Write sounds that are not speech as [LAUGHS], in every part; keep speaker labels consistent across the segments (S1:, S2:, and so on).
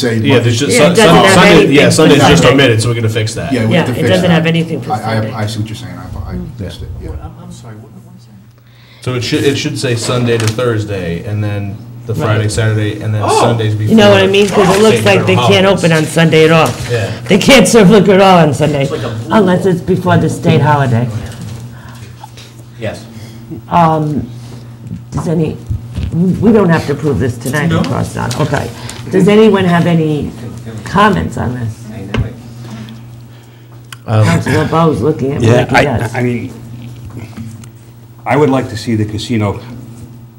S1: say.
S2: Yeah, there's
S1: Monday.
S2: just, Sun-
S3: it doesn't
S2: Sun-
S3: have
S2: Sunday, yeah,
S3: anything
S2: Sunday's
S1: for
S2: just
S3: Sunday.
S2: omitted, so we're gonna fix that.
S1: Yeah, we have to
S3: Yeah, it
S1: fix that.
S3: doesn't have anything for Mm.
S1: I- I-
S3: Sunday.
S1: I see what you're saying, I I missed it, yeah.
S4: I'm sorry, what what was that?
S2: So it should, it should say Sunday to Thursday, and then the Friday, Saturday, and then
S4: Oh.
S2: Sundays before.
S3: You know what I mean? Because it looks like they can't open on Sunday at all.
S2: Yeah.
S3: They can't serve liquor at all on Sunday,
S4: like a blue
S3: unless it's before the state holiday.
S4: Yes.
S3: Does any, we don't have to prove this tonight,
S4: No.
S3: of course not, okay. Does anyone have any comments on this? Councilor Bowe's looking at me
S5: Yeah,
S3: like he
S5: I, I
S3: does.
S5: mean, I would like to see the casino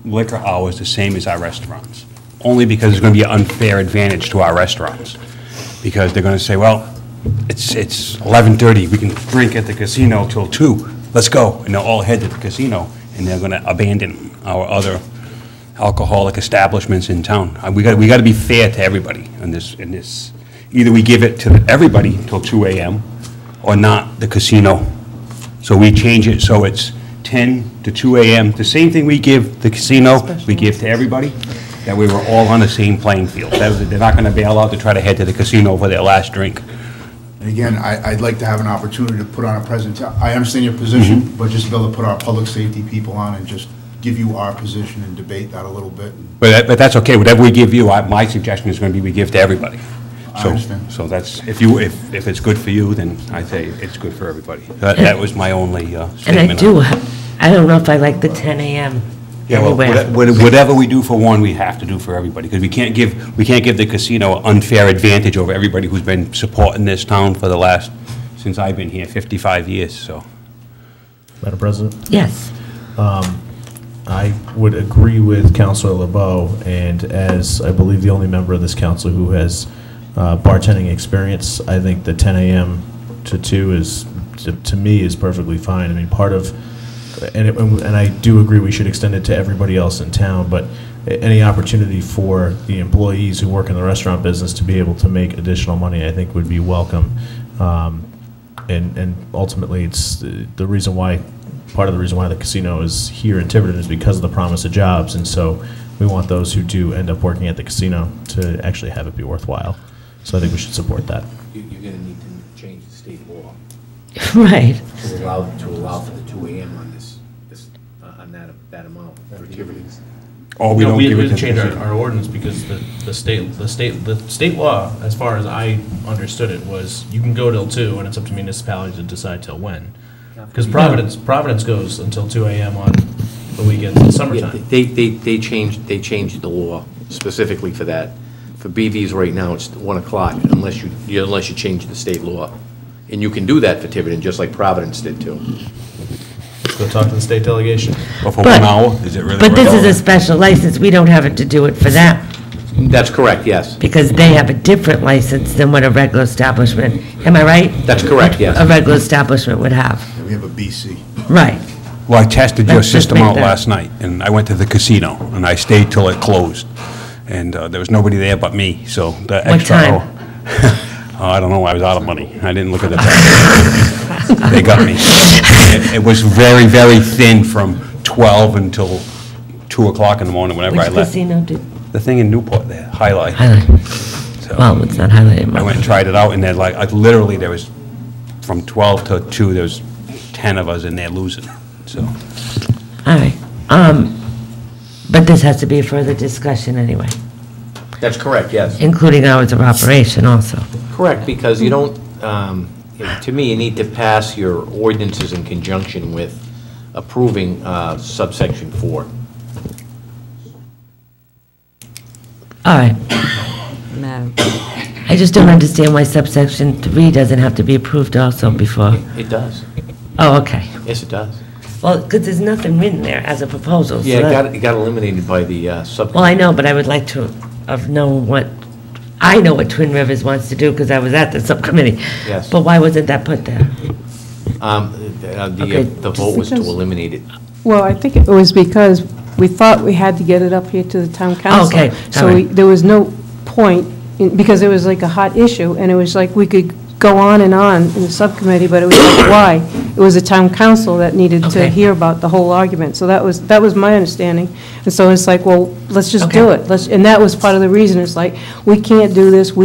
S5: liquor hours the same as our restaurants, only because it's going to be an unfair advantage to our restaurants. Because they're going to say, well, it's, it's 11:30, we can drink at the casino till 2, let's go. And they'll all head to the casino, and they're going to abandon our other alcoholic establishments in town. Uh, We got, we got to be fair to everybody in this, in this. Either we give it to everybody till 2 AM, or not the casino. So we change it so it's 10 to 2 AM, the same thing we give the casino, we give to everybody, that we were all on the same playing field. That was- They're not going to bail out to try to head to the casino for their last drink.
S1: And again, I, I'd like to have an opportunity to put on a present, I understand your
S2: Mm-hmm.
S1: position, but just be able to put our public safety people on and just give you our position and debate that a little bit.
S5: But, that- but that's okay, whatever we give you, I- my suggestion is going to be we give to everybody.
S1: I
S5: So-
S1: understand.
S5: So that's, if you, if, if it's good for you, then I say it's good for everybody. That, that was my only uh,
S3: And
S5: statement.
S3: I do, I don't know if I like the 10 AM
S5: Yeah, well,
S3: anywhere.
S5: what- what- whatever we do for one, we have to do for everybody, because we can't give, we can't give the casino an unfair advantage over everybody who's been supporting this town for the last, since I've been here, 55 years, so.
S2: Madam President,
S3: Yes, [LAUGHS]
S2: I would agree with Counselor LeBeau, and as I believe the only member of this council who has uh, bartending experience, I think the ten AM to two is, to- to me, is perfectly fine. I mean, part of, and, it- and I do agree we should extend it to everybody else in town, but a- any opportunity for the employees who work in the restaurant business to be able to make additional money, I think would be welcome. Um, and, and ultimately, it's the the reason why, part of the reason why the casino is here in Tiverton is because of the promise of jobs, and so we want those who do end up working at the casino to actually have it be worthwhile. So I think we should support that.
S4: You're gonna need to change the state law
S3: right.
S4: to allow, to allow for the two AM on this, this, uh, on that, that amount for activities.
S5: Or we
S6: No,
S5: don't
S6: we
S5: give
S6: had
S5: it to
S6: to
S5: the
S6: change our,
S5: casino.
S6: our ordinance because the, the state, the state, the state law, as far as I understood it, was you can go till two and it's up to municipalities to decide till when. Because Providence, Providence goes until two AM on the weekends in summertime.
S4: They, they, they changed, they changed the law specifically for that. For BVs right now, it's one o'clock unless you, you- unless you change the state law. And you can do that for Tiverton, just like Providence did too.
S6: Go talk to the state delegation.
S5: Or for
S3: But-
S5: one hour, is it really?
S3: But this is
S5: worth
S3: a
S5: it?
S3: special license, we don't have it to do it for them,
S4: That's correct, yes.
S3: because they have a different license than what a regular establishment, am I right?
S4: That's correct,
S3: A
S4: yes.
S3: regular establishment would have,
S1: And We have a BC.
S3: right.
S5: Well, I tested your
S3: Let's just
S5: system
S3: make
S5: out
S3: that-
S5: last night, and I went to the casino, and I stayed till it closed. And uh, there was nobody there but me, so the
S3: What
S5: extra
S3: time?
S5: hour. [LAUGHS] Oh, I don't know, I was out of money. I didn't look at the time. [LAUGHS] They got me. It it was very, very thin from 12 until 2 o'clock in the morning whenever
S3: Which
S5: I left.
S3: casino did,
S5: The thing in Newport, the Highlight.
S3: highlight,
S5: So-
S3: well, it's not highlighted.
S5: I went and tried it out, and then like, I literally, there was, from 12 to 2, there was 10 of us in there losing, so.
S3: All right, um, but this has to be a further discussion anyway,
S4: That's correct, yes.
S3: including hours of operation also.
S4: Correct, because you don't, um, to me, you need to pass your ordinances in conjunction with approving uh, subsection four.
S3: All right. I just don't understand why subsection three doesn't have to be approved also before,
S4: It does.
S3: oh, okay.
S4: Yes, it does.
S3: Well, because there's nothing written there as a proposal, so
S4: Yeah, it
S3: that-
S4: got, it got eliminated by the uh, sub.
S3: Well, I know, but I would like to have known what, I know what Twin Rivers wants to do, because I was at the subcommittee.
S4: Yes.
S3: But why wasn't that put there?
S4: Um, uh, The uh,
S3: Okay.
S4: the vote was to
S7: Because-
S4: eliminate it.
S7: Well, I think it was because we thought we had to get it up here to the town council.
S3: Okay, all
S7: So
S3: right.
S7: we- there was no point, in- because it
S3: [COUGHS]
S7: was like a hot issue, and it was like we could go on and on in the subcommittee, but it was like, why? it was the town council that needed to
S3: Okay.
S7: hear about the whole argument. So that was, that was my understanding. And so it's like, well, let's just do
S3: Okay.
S7: it. Let's, and that was part of the reason, it's like, we can't do this, we